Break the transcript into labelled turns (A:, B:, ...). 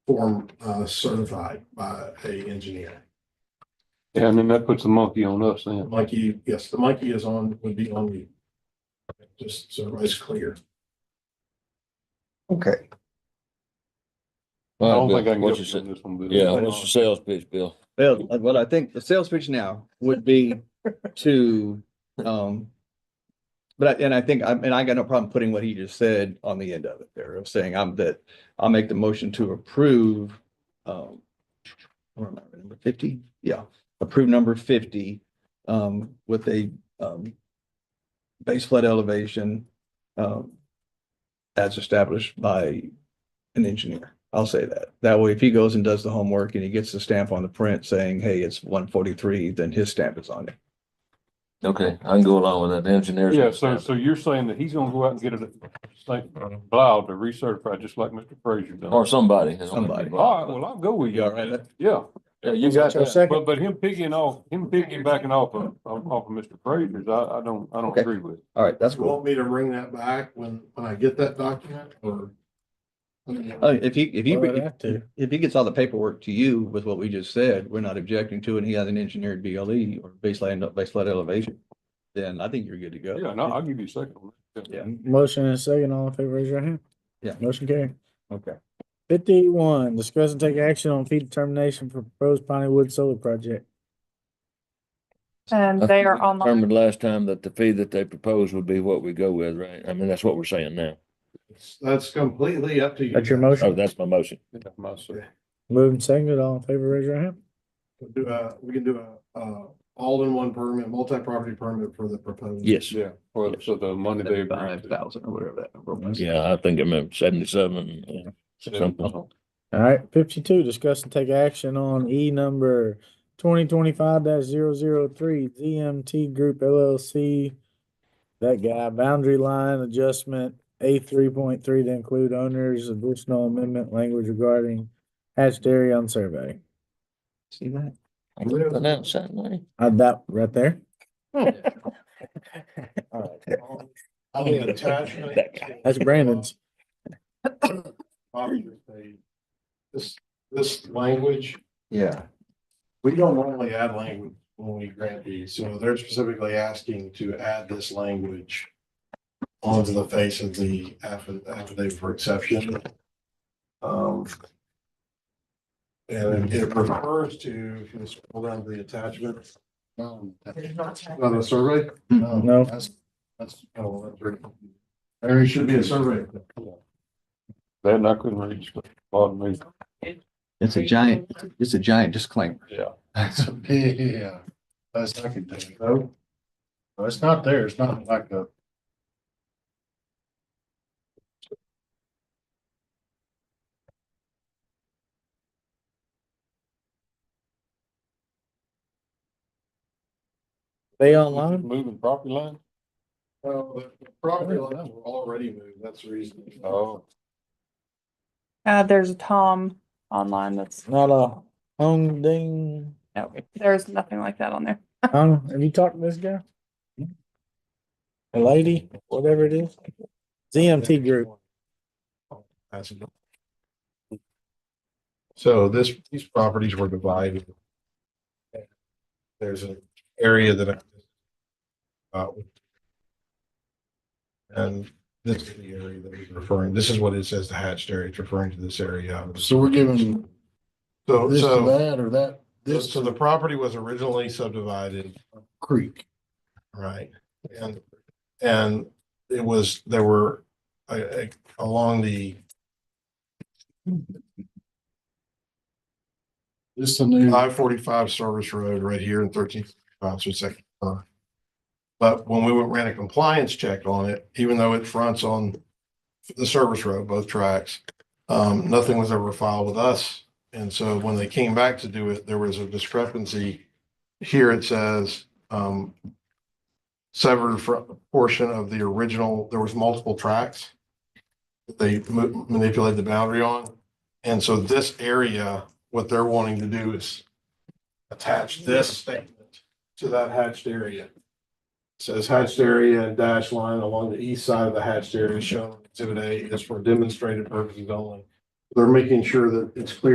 A: form uh, certified by a engineer.
B: Yeah, and then that puts the monkey on us then.
A: Mikey, yes, the Mikey is on, would be on you. Just so everybody's clear.
C: Okay,
B: I
D: All
B: don't
D: right,
B: think I
D: Bill,
B: can
D: what's
B: get
D: your,
B: you
D: se-
B: on this one. Bill.
D: yeah, what's your sales pitch, Bill?
C: well, uh, well, I think the sales pitch now would be to, um. But, I- and I think, I, and I got no problem putting what he just said on the end of it there, of saying I'm that, I'll make the motion to approve, um. Where am I, number fifty? Yeah, approve number fifty, um, with a, um. Base flood elevation, um. As established by an engineer. I'll say that. That way, if he goes and does the homework and he gets the stamp on the print saying, hey, it's one forty-three, then his stamp is on it.
D: Okay, I can go along with that, the engineers.
B: Yeah, so, so you're saying that he's gonna go out and get it, like, Blau to recertify, just like Mr. Frazier done.
D: Or
B: All
D: somebody. is what
C: Somebody.
D: I'm-
B: right, well, I'll go with you.
C: You all right with that?
B: Yeah,
D: Yeah, you got
E: Your
D: that.
E: second,
B: but, but him picking off, him picking backing off of, off of Mr. Frazier's, I, I don't, I don't
C: Okay.
B: agree with. it.
C: All right, that's
A: You
C: cool.
A: want me to bring that back when, when I get that document or?
C: Uh, if he, if he,
E: Well, I'd have to.
C: if he gets all the paperwork to you with what we just said, we're not objecting to it, and he has an engineered BLE or baseline, base flood elevation, then I think you're good to go.
B: Yeah, no, I'll give you a second. one.
C: Yeah,
E: motion and a second, all in favor, raise your hand.
C: Yeah.
E: Motion carried.
C: okay.
E: Fifty-one, discuss and take action on fee determination for proposed Piney Wood Solar Project.
F: Um, they are online.
D: Remembered last time that the fee that they proposed would be what we go with, right? I mean, that's what we're saying now.
A: That's completely up to you.
E: That's your
A: guys.
D: Oh,
E: motion.
D: that's my motion.
B: Yeah, my second.
E: Moved and seconded, all in favor, raise your hand.
A: We'll Do a, we can do a, uh, all-in-one permit, multi-property permit for the proposed.
D: Yes.
B: Yeah, well, so the money they.
C: Five thousand or whatever that number was.
D: Yeah, I think I remember seventy-seven, yeah, something.
E: All right, fifty-two, discuss and take action on E number twenty twenty-five 3 ZMT Group LLC. That guy, boundary line adjustment, A three point three to include owners, additional amendment language regarding hatched area on survey.
C: See that?
D: I can pronounce that name.
E: Add that right there.
A: I mean, attachment.
D: That guy.
E: That's Brandon's.
A: Obviously, This, this language,
C: Yeah.
A: we don't normally add language when we grant these, so they're specifically asking to add this language onto the face of the affi- affidavit for exception. Um, and it refers to, if you scroll down to the attachment. um, On the survey?
E: No.
A: That's, that's, oh, that's right. There should be a survey.
B: Then I couldn't reach the bottom of it.
C: It's a giant, it's a giant disclaimer.
A: That's, yeah, that's I can think of. No, it's not there, it's not like a.
E: They online?
B: Moving property line?
A: Well, the property lines were already moved, that's the reason.
B: Oh,
F: Uh, there's a Tom online that's,
E: Not a Hong Ding.
F: no, there's nothing like that on there.
E: Hong, have you talked to this guy? A lady, whatever it is. ZMT group.
A: That's enough. So this, these properties were divided. There's an area that. I- uh, And this is the area that he's referring, this is what it says the hatched area, it's referring to this area.
G: So we're giving
A: So,
G: this to
A: so,
G: that or that, this
A: so
G: to
A: the property was originally subdivided
G: creek.
A: Right, and, and it was, there were, uh, uh, along the,
G: This the
C: Mm.
G: new,
A: I forty-five service road right here in thirteen fifty-five, so second. But when we went- ran a compliance check on it, even though it fronts on the service road, both tracks, um, nothing was ever filed with us. And so when they came back to do it, there was a discrepancy. Here it says, um, severed fr- portion of the original, there was multiple tracks that they ma- manipulated the boundary on. And so this area, what they're wanting to do is attach this statement to that hatched area. Says hatched area and dash line along the east side of the hatched area shown in exhibit A is for demonstrated purposes only. They're making sure that it's clear